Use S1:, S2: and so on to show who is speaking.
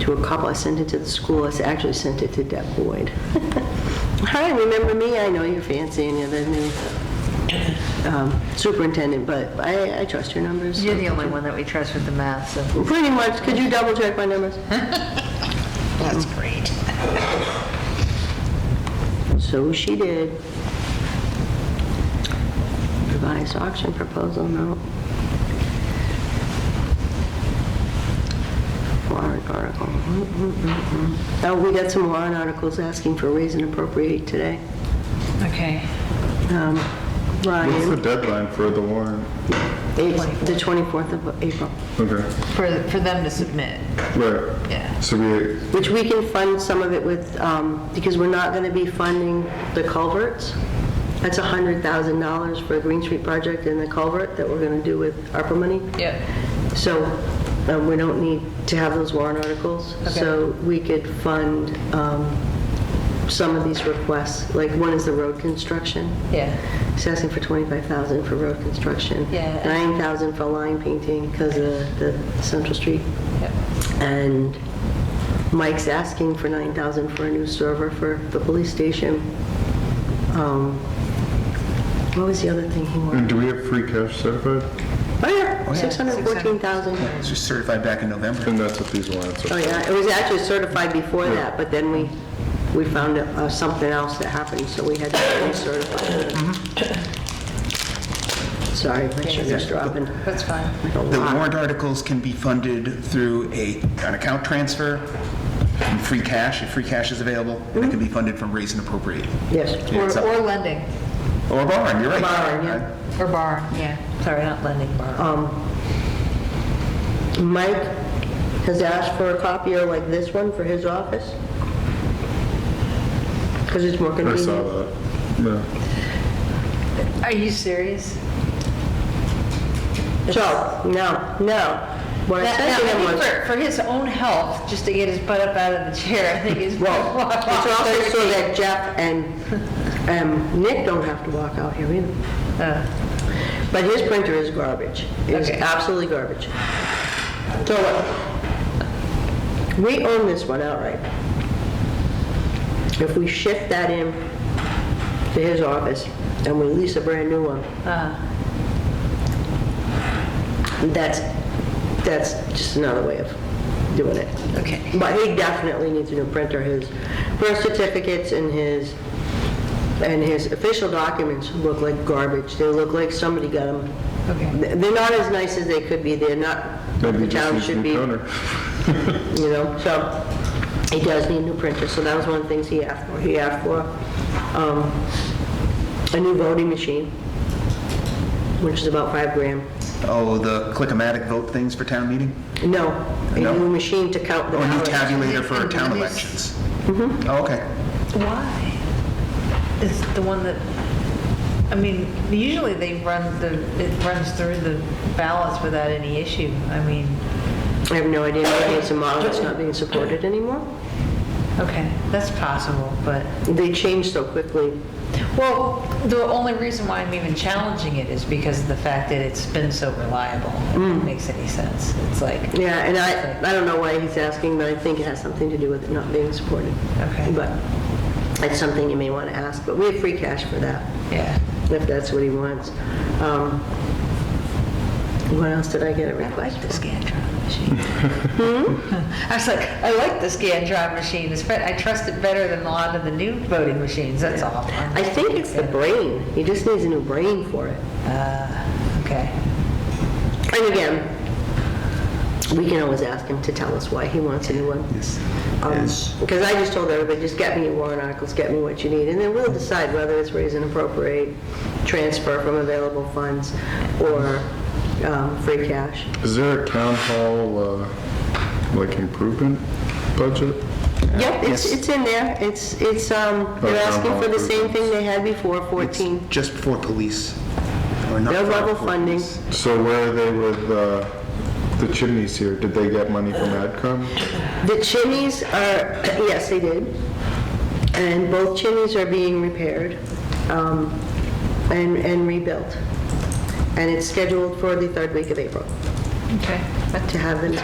S1: to a couple, I sent it to the school, I s- actually sent it to Deb Boyd. Hi, remember me? I know you're fancy and you're the new um, superintendent, but I I trust your numbers.
S2: You're the only one that we trust with the math, so.
S1: Pretty much, could you double check my numbers?
S2: That's great.
S1: So she did. Revised auction proposal, no. Warrant article. Mm, mm, mm, mm. Oh, we got some warrant articles asking for raise and appropriate today.
S2: Okay.
S1: Um,
S3: What's the
S1: Ryan,
S3: deadline for the warrant?
S1: it's the 24th of April,
S3: Okay,
S2: For, for them to submit.
S3: right.
S2: Yeah.
S3: So we,
S1: which we can fund some of it with, um, because we're not going to be funding the culverts. That's $100,000 for a Green Street project and the culvert that we're going to do with ARPA money.
S2: Yep.
S1: So um, we don't need to have those warrant articles. So we could fund um, some of these requests, like one is the road construction.
S2: Yeah.
S1: It's asking for 25,000 for road construction.
S2: Yeah.
S1: 9,000 for line painting because of the Central Street.
S2: Yep.
S1: And Mike's asking for 9,000 for a new server for the police station. Um, What was the other thing he wanted?
S3: and do we have free cash certified?
S1: Oh, yeah, 614,000.
S4: It was just certified back in November.
S3: And that's what these warrants
S1: Oh,
S3: are.
S1: yeah, it was actually certified before that, but then we, we found uh, something else that happened, so we had to recertify
S2: Mm-hmm.
S1: it. Sorry, my sugar's dropping.
S2: That's fine.
S1: like a
S4: The
S1: lot.
S4: warrant articles can be funded through a, an account transfer, from free cash, if free cash is available, and it can be funded from raise and appropriate.
S1: Yes.
S2: Or,
S4: it's up.
S2: or lending,
S4: Or borrowing, you're right.
S1: Borrowing, yeah.
S2: or borrowing, yeah. Sorry, not lending, borrowing.
S1: Um, Mike has asked for a copier like this one for his office, because it's more
S3: I
S1: convenient.
S3: saw that. Yeah.
S2: Are you serious?
S1: So, no, no. What I
S2: Now-
S1: said
S2: now,
S1: to
S2: I
S1: him
S2: think
S1: was,
S2: for, for his own health, just to get his butt up out of the chair, I think is.
S1: well, it's also so that Jeff and um, Nick don't have to walk out here either.
S2: Uh,
S1: But his printer is garbage. It is
S2: Okay.
S1: absolutely garbage. So, we own this one outright. If we shift that in to his office and we lease a brand new one,
S2: Uh.
S1: that's, that's just another way of doing it.
S2: Okay.
S1: But he definitely needs a new printer. His birth certificates and his, and his official documents look like garbage. They look like somebody got them.
S2: Okay.
S1: They're not as nice as they could be. They're not,
S3: Maybe
S1: the
S3: just
S1: town
S3: use
S1: should
S3: new
S1: be,
S3: toner.
S1: you know, so he does need a new printer. So that was one of the things he asked for. He asked for um, a new voting machine, which is about five grand.
S4: Oh, the click-o-matic vote things for town meeting?
S1: No, a
S4: No?
S1: new machine to count the
S3: Oh,
S4: Or a new
S1: ballots.
S4: tabulator for town elections?
S1: Mm-hmm.
S4: Oh, okay.
S2: Why? It's the one that, I mean, usually they run the, it runs through the ballots without any issue. I mean,
S1: I have no idea, maybe it's a model that's not being supported anymore.
S2: okay, that's possible, but,
S1: They change so quickly.
S2: well, the only reason why I'm even challenging it is because of the fact that it's been so reliable. If
S1: Mm.
S2: it makes any sense. It's like,
S1: Yeah, and I, I don't know why he's asking, but I think it has something to do with it not being supported.
S2: Okay.
S1: But it's something you may want to ask, but we have free cash for that,
S2: yeah.
S1: if that's what he wants. Um, What else did I get a
S2: I
S1: request?
S2: like the Scantron machine.
S1: Hmm?
S2: I was like, I like the Scantron machine. It's, bet- I trust it better than a lot of the new voting machines, that's all.
S1: I think it's the brain, he just needs a new brain for it.
S2: Uh, Okay.
S1: And again, we can always ask him to tell us why he wants a new one. Yes. Because I just told everybody, just get me your warrant articles, get me what you need, and then we'll decide whether it's raise and appropriate, transfer from available funds, or um, free cash.
S3: Is there a town hall, uh, like improvement budget?
S1: Yep, it's,
S4: Yes.
S1: it's in there, it's, it's, um, they're
S3: Oh,
S1: asking for the same thing they had before,
S4: It's
S1: 14.
S4: Just for police. or not
S1: No
S4: for
S1: level
S4: police.
S1: funding.
S3: So where are they with, uh, the chimneys here? Did they get money from AdCom?
S1: The chimneys are, yes, they did. And both chimneys are being repaired um, and and rebuilt. And it's scheduled for the third week of April
S2: Okay.
S1: to have them